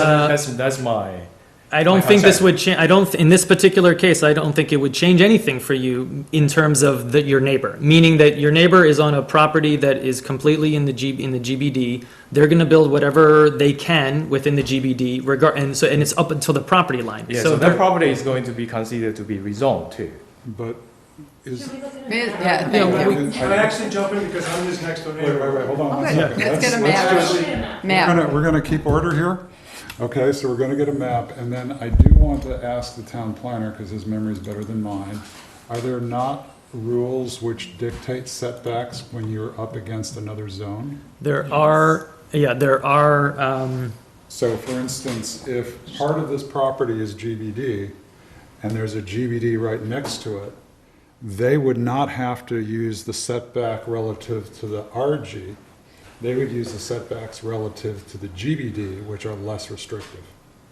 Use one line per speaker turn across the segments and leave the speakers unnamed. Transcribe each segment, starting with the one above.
that's, that's my,
I don't
Like,
think
I'm
this would change, I don't, th- in this particular case, I don't think it would change anything for you in terms of the, your neighbor. Meaning that your neighbor is on a property that is completely in the G, in the GBD. They're gonna build whatever they can within the GBD regard, and so, and it's up until the property line.
yeah, so that
they're-
property is going to be considered to be rezoned too.
But is,
Yeah,
Yeah,
thank you.
we-
Can I actually jump in because I'm his next door
wait, wait,
neighbor?
wait, hold on one
Okay,
second.
let's get
let's
a map.
just- We're
Ma'am,
gonna, we're gonna keep order here. Okay, so we're gonna get a map, and then I do want to ask the town planner, because his memory's better than mine. Are there not rules which dictate setbacks when you're up against another zone?
There are, yeah, there are, um,
So for instance, if part of this property is GBD, and there's a GBD right next to it, they would not have to use the setback relative to the RG. They would use the setbacks relative to the GBD, which are less restrictive.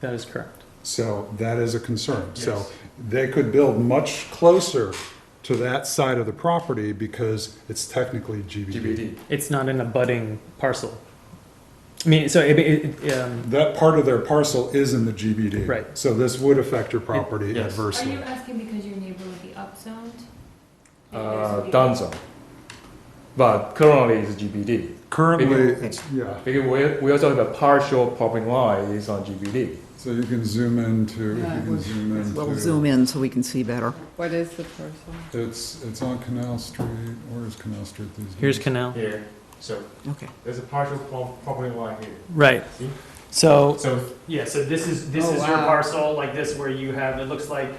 that is correct.
So that is a concern. So they could build much closer to that side of the property because it's technically GBD.
It's not an abutting parcel. I mean, so it, it, it, um,
That part of their parcel is in the GBD.
Right.
So this would affect your property
yes.
Are
adversely.
you asking because your neighbor would be upzoned?
Uh, done zone. But currently it's GBD,
Currently,
Maybe-
it's, yeah,
because we, we also have a partial property line is on GBD.
so you can zoom into, you can zoom
We'll
into,
zoom in so we can see better.
what is the parcel?
it's, it's on Canal Street, where is Canal Street these days?
here's canal,
Here, so
Okay.
there's a partial property line here.
right.
See?
So,
So
Yeah, so this is, this
Oh,
is your
wow.
parcel, like this, where you have, it looks like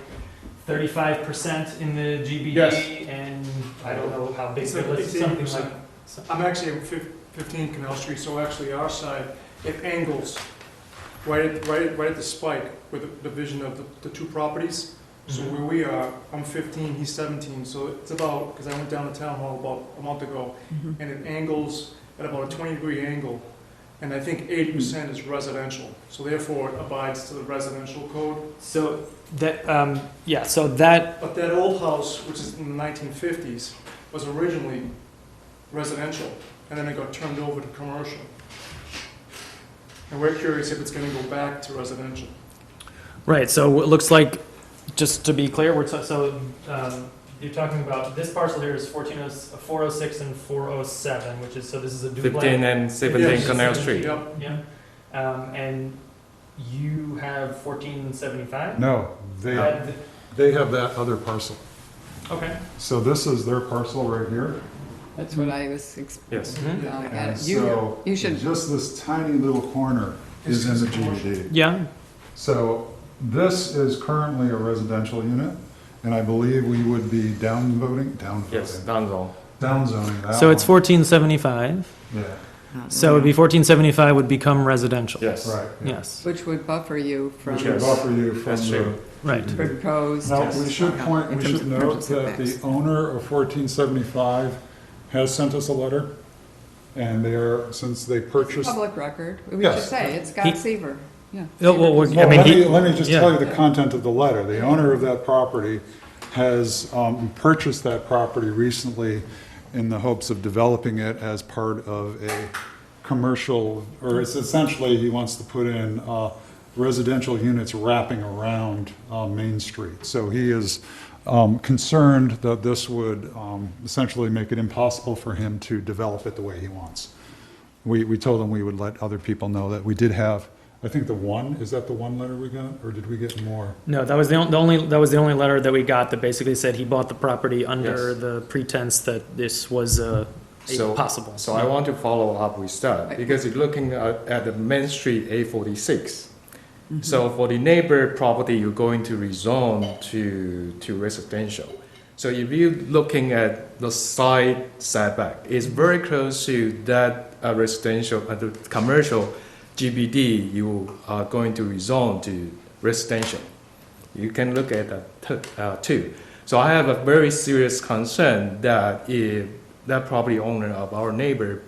thirty-five percent in the
Yes.
GBD, and I don't know how big
It's
it
like
is, something
18%.
like. so-
I'm actually at fif- 15 Canal Street, so actually our side, it angles right at, right at, right at the spike with the division of the, the two properties. So
Mhm.
where we are, I'm 15, he's 17, so it's about, because I went down to town hall about a month ago,
Mm-hmm.
Mhm.
and it angles at about a 20 degree angle. And I think 80% is residential, so therefore it abides to the residential code.
So, that, um, yeah, so that,
But that old house, which is in the 1950s, was originally residential, and then it got turned over to commercial. And we're curious if it's gonna go back to residential.
right, so it looks like, just to be clear, we're, so, um, you're talking about, this parcel here is fourteen oh, four oh six and four oh seven, which is, so this is a
fifteen and seventeen
Yes.
Canal Street.
Yep,
Yeah, um, and you have fourteen seventy-five?
No,
Uh,
they, they have that other parcel.
Okay.
So this is their parcel right here.
That's what I was expecting.
Yes.
Mhm.
Oh, I got
Mm-hmm. And
it. You,
so,
you should,
just this tiny little corner is in the GBD.
Yeah,
So this is currently a residential unit, and I believe we would be downvoting,
Yes,
downvoting,
done zone.
downzoning that
So it's
one.
fourteen seventy-five,
Yeah,
Uh,
so it'd be fourteen seventy-five would become residential.
Yes.
right. yeah.
Yes,
which would buffer you from
Which would
Yes.
buffer you from
That's
the.
true.
right.
proposed.
Now, we should point,
In
we
terms
should
of
note
emergency
that the
setbacks.
owner of fourteen seventy-five has sent us a letter, and they are, since they purchased.
Public record, we should
Yes.
say, it's
He-
Scott Seaver, yeah.
Oh, well,
Seaver.
we- I
Well,
mean,
let me,
he-
let me just
yeah.
tell you the content of the letter. The owner of that property has um, purchased that property recently in the hopes of developing it as part of a commercial, or it's essentially, he wants to put in uh, residential units wrapping around uh, Main Street. So he is um, concerned that this would um, essentially make it impossible for him to develop it the way he wants. We, we told them we would let other people know that we did have, I think the one, is that the one letter we got, or did we get more?
No, that was the on- the only, that was the only letter that we got that basically said he bought the property under
Yes.
the pretense that this was, uh, a
So-
possible.
So I want to follow up with that
Right.
because you're looking at, at the Main Street A46. So for the neighbor property, you're going to rezone to, to residential. So if you're looking at the side setback, it's very close to that uh, residential, uh, the commercial GBD you are going to rezone to residential. You can look at that t- uh, too. So I have a very serious concern that if that property owner of our neighbor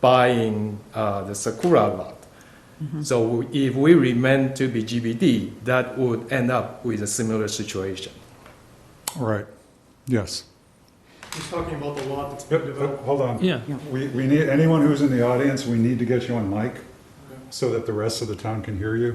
buying uh, the Sakura lot, so if we remain to be GBD, that would end up with a similar situation.
Right, yes.
he's talking about the lot that's been developed.
oh, Hold on.
Yeah,
We, we need, anyone who's in the audience, we need to get you on mic so that the rest of the town can hear you.